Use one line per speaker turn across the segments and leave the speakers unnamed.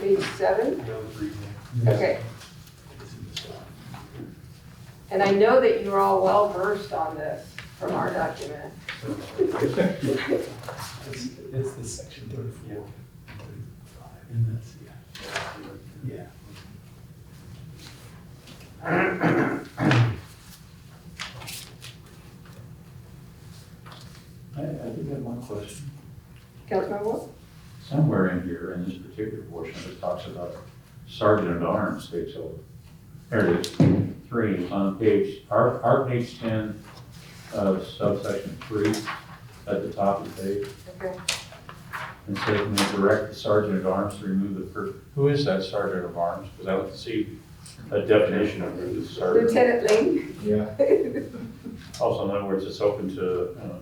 page seven? Okay. And I know that you're all well versed on this from our document.
It's, it's the section thirty-four. And that's, yeah. Yeah.
I, I did have one question.
Councilmember Wolf?
Somewhere in here, in this particular portion, it talks about sergeant at arms takes over. There it is, three, on page, our, our page ten, uh, subsection three, at the top of the page.
Okay.
And so can we direct the sergeant at arms to remove the per, who is that sergeant at arms? Because I would see a definition of who the sergeant.
Lieutenant Ling?
Yeah.
Also, in other words, it's open to, uh,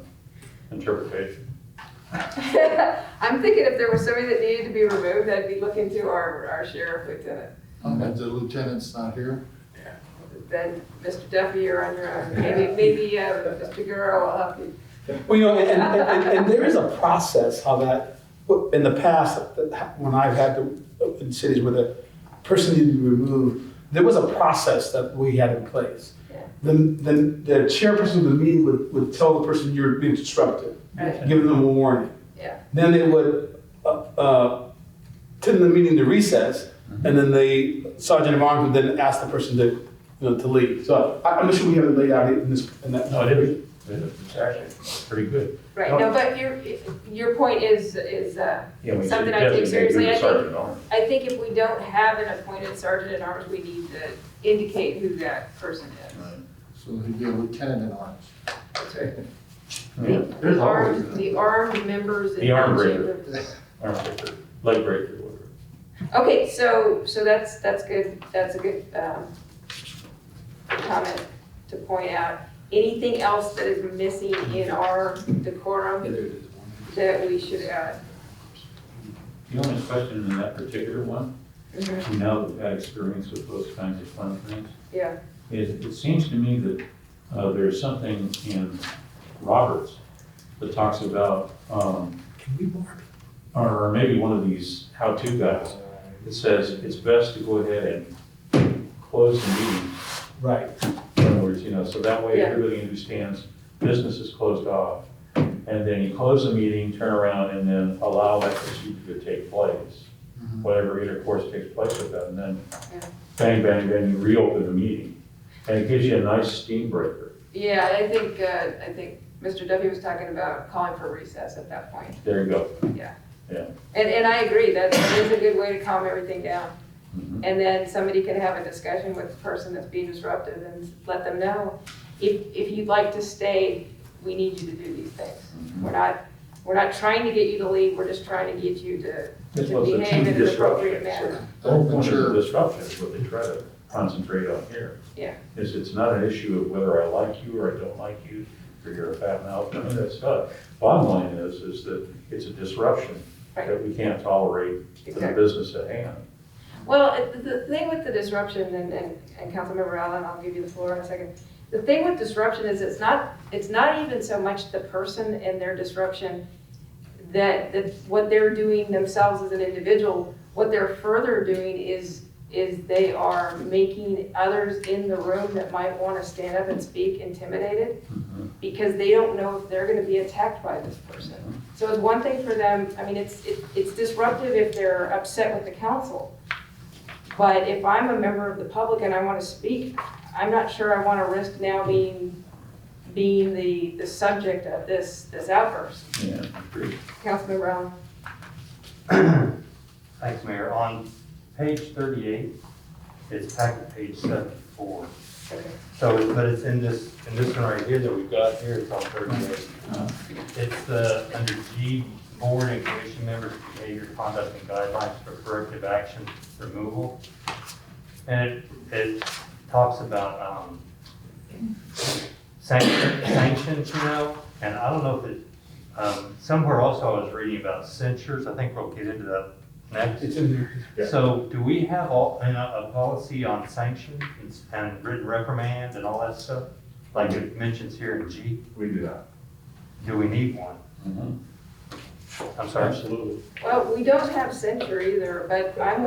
interpretation.
I'm thinking if there was somebody that needed to be removed, I'd be looking to our, our sheriff lieutenant.
And the lieutenant's not here?
Then, Mr. Duffy, you're on your own. Maybe, maybe, uh, Mr. Guerrero will help you.
Well, you know, and, and, and, and there is a process how that, in the past, when I've had to, in cities where the person needed to be removed, there was a process that we had in place.
Yeah.
Then, then the chairperson of the meeting would, would tell the person you're being disruptive,
Right.
giving them a warning.
Yeah.
Then they would, uh, uh, tend the meeting to recess, and then the sergeant of arms would then ask the person to, you know, to leave. So I, I'm not sure we have it laid out in this, in that.
No, it is, it's actually pretty good.
Right, no, but your, your point is, is, uh,
Yeah, we should
Something I take
designate who
seriously,
the
I think-
sergeant at arms
I think if we don't have an appointed sergeant at arms, we need to indicate who that person is.
So he'd be a lieutenant in arms.
That's right.
Yeah.
The- The armed, the armed members. in
The armed
township
raider.
of the-
Or breaker, leg breaker, whatever.
Okay, so, so that's, that's good, that's a good, um, comment to point out. Anything else that is missing in our decorum that we should add?
The only question in that particular one,
Mm-hmm.
you know, we've had experience with those kinds of fun things.
Yeah.
It, it seems to me that, uh, there's something in Roberts that talks about, um,
Can we borrow?
or maybe one of these how-to guides. It says it's best to go ahead and close the meeting.
Right.
In other words, you know, so that way
Yeah.
everybody understands business is closed off. And then you close the meeting, turn around, and then allow that procedure to take place. whatever intercourse takes place with them, and then
Yeah.
bang, bang, bang, you reopen the meeting. And it gives you a nice steam breaker.
Yeah, I think, uh, I think Mr. Duffy was talking about calling for recess at that point.
There you go.
And, and I agree, that that is a good way to calm everything down.
Mhm.
And then somebody can have a discussion with the person that's being disruptive and let them know, if, if you'd like to stay, we need you to do these things.
Mm-hmm.
We're not, we're not trying to get you to leave, we're just trying to get you to
This
to
was a
behave
team
in an appropriate
disruption.
manner.
The whole point of
Sure.
the disruption is what they try to concentrate on here.
Yeah.
Is it's not an issue of whether I like you or I don't like you, or you're a fat mouth, none of that stuff. Bottom line is, is that it's a disruption
Right.
that we can't tolerate to the
Exactly.
business at hand.
Well, it- the the thing with the disruption, and, and, and Councilmember Allen, I'll give you the floor in a second. The thing with disruption is it's not, it's not even so much the person and their disruption that, that what they're doing themselves as an individual, what they're further doing is, is they are making others in the room that might want to stand up and speak intimidated
Mm-hmm.
because they don't know if they're gonna be attacked by this person. So it's one thing for them, I mean, it's, it- it's disruptive if they're upset with the council. But if I'm a member of the public and I wanna speak, I'm not sure I wanna risk now being, being the, the subject of this, this outburst.
Yeah, agreed.
Councilmember Allen?
Thanks, Mayor. On page thirty-eight, it's packet page seventy-four. So, but it's in this, in this one right here that we've got here, it's on thirty-eight. It's, uh, under G, board and commission members' behavior, conduct, and guidelines for corrective action removal. And it, it talks about, um, sanction- sanctions, you know, and I don't know if it, um, somewhere also I was reading about censures. I think we'll get into that next.
It's in there.
Yeah.
So do we have all, and a, a policy on sanction and s- and written reprimand and all that stuff? Like it mentions here in G,
We do that.
do we need one?
Mhm.
I'm sorry.
Absolutely.
Well, we don't have censure either, but I'm